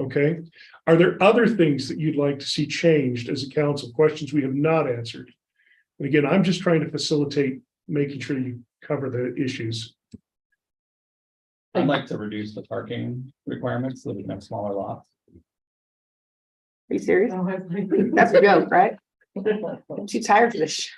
Okay, are there other things that you'd like to see changed as a council, questions we have not answered? And again, I'm just trying to facilitate making sure you cover the issues. I'd like to reduce the parking requirements so that we can have smaller lots. Are you serious? Oh, I think- That's a joke, right? I'm too tired for this. shit.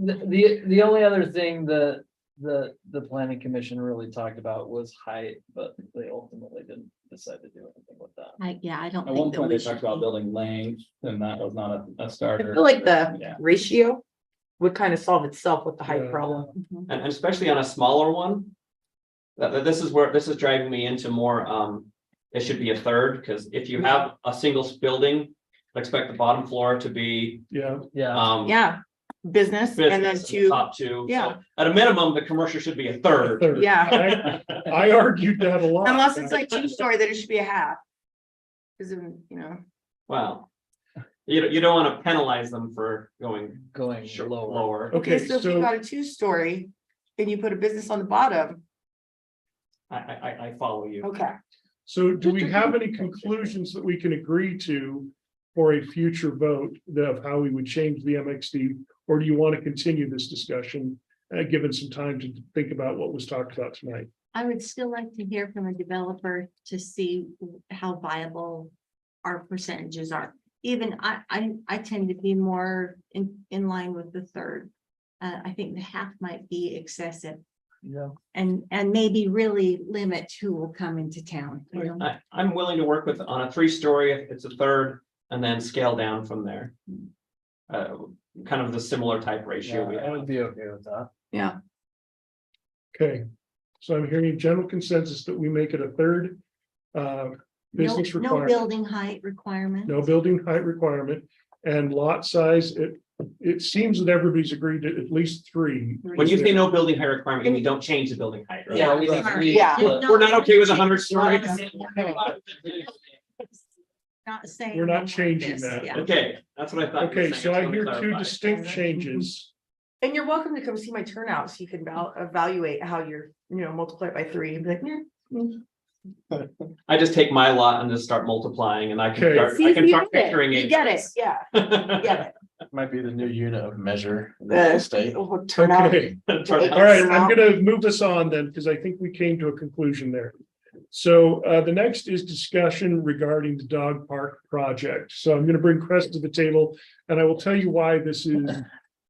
The, the, the only other thing that the, the planning commission really talked about was height, but they ultimately didn't decide to do anything with that. I, yeah, I don't At one think that point, we they talked should. about building lanes, and that was not a- a I starter. feel like the Yeah. ratio would kind of solve itself with the height Yeah. problem. and and especially on a smaller one. That, that this is where, this is driving me into more, um, it should be a third, because if you have a single s- building. Expect the bottom floor to be, Yeah, Yeah, um. Yeah, business and then business the two, Top two. So yeah. At a minimum, the commercial should be a third. third. yeah, I I argued that a lot. unless it's like two story, then it should be a half. Cause then, you know, Wow. You, don't- you don't want to penalize them for going going sh- lower. lower. Okay, okay, so if you so, got a two story and you put a business on the bottom, I, I, I- I follow you. okay. so do we have any conclusions that we can agree to? For a future vote of how we would change the MXD, or do you want to continue this discussion? Uh, given some time to think about what was talked about tonight? I would still like to hear from a developer to see how viable our percentages are. Even I, I, I tend to be more in, in line with the third. Uh, I think the half might be excessive Yeah. and, and maybe really limit who will come into town. you Uh, know? I, I'm willing to work with, on a three-story, if it's a third, and then scale down from there. Uh, kind of the similar type ratio we Yeah, I have. would be okay with that. Okay, so I'm hearing general consensus that we make it a third. Uh, No, business no requirement, building height requirement. no building height requirement and lot size, it. It seems that everybody's agreed to at least three. Three. When you say no building height requirement, you mean don't change the building height, right? Yeah, we agree, but- We're not okay with a hundred stories. Not saying. We're not like changing this, that. yeah. Okay, that's what I thought. you were Okay, saying. so just I wanted hear to two clarify. distinct changes. And you're welcome to come see my turnout so you can val- evaluate how you're, you know, multiply it by three and be like, "Meh." I just take my lot and just start multiplying and I can Okay. start, See, I if can you start get it, picturing it. you get it, yeah, you get Might be the new unit of measure. in Uh, the state. it. We'll turn out. Okay, Turn it all right, I'm gonna move this on then, because I think we came to a conclusion there. So uh, the next is discussion regarding the dog park project. So I'm gonna bring Crest to the table. And I will tell you why this is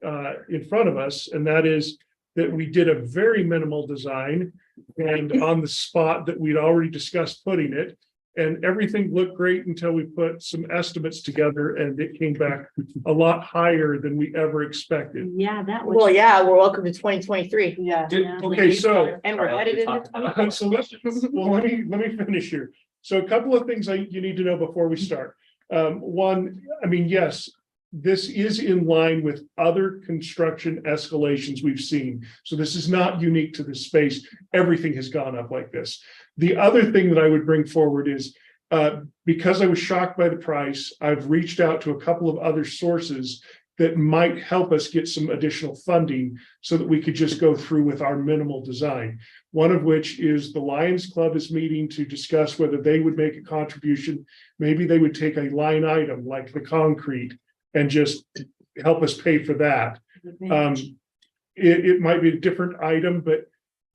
uh, in front of us, and that is that we did a very minimal design and on the spot that we'd already discussed putting it. And everything looked great until we put some estimates together and it came back a lot higher than we ever expected. Yeah, that was. Well, yeah, we're welcome to twenty twenty-three. Yeah. Did- Yeah. Okay, so And we're Charlie, headed we into talked about Okay, so let's, well, let me, let me finish here. So a couple of things I, you need to know before we start. Um, one, I mean, yes, this is in line with other construction escalations we've seen. So this is not unique to this space. Everything has gone up like this. The other thing that I would bring forward is, uh, because I was shocked by the price, I've reached out to a couple of other sources that might help us get some additional funding so that we could just go through with our minimal design one of which is the Lions Club is meeting to discuss whether they would make a contribution. Maybe they would take a line item like the concrete and just help us pay for that. Um, it, it might be a different item, but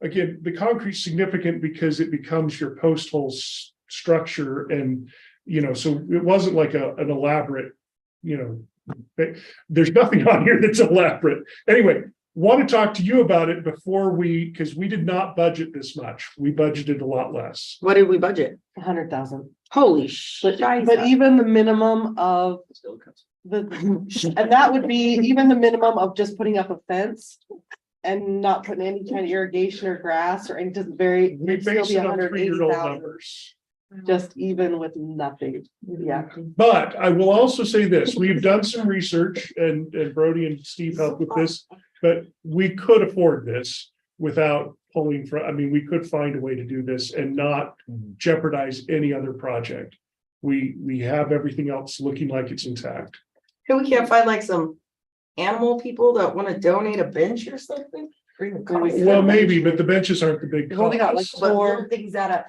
again, the concrete's significant because it becomes your post hole s- structure and, you know, so it wasn't like a, an elaborate, you know, but there's nothing on here that's elaborate. Anyway, want to talk to you about it before we, because we did not budget this much. We budgeted a lot less. What did we budget? A hundred thousand, Holy shit. but but even the minimum of the, and that would be even the minimum of just putting up a fence. And not putting any kind of irrigation or grass or any just very, We it'd still based be it a on hundred eighty three-year-old thousand, numbers. just even with nothing, yeah. But I will also say this, we've done some research and, and Brody and Steve helped with this, but we could afford this without pulling from, I mean, we could find a way to do this and not jeopardize any other project. We, we have everything else looking like it's intact. Who we can't find like some animal people that want to donate a bench or something? Or even Well, we coffee. Well, maybe, but the benches aren't the big. We've only got like cost. But four. little things that, uh,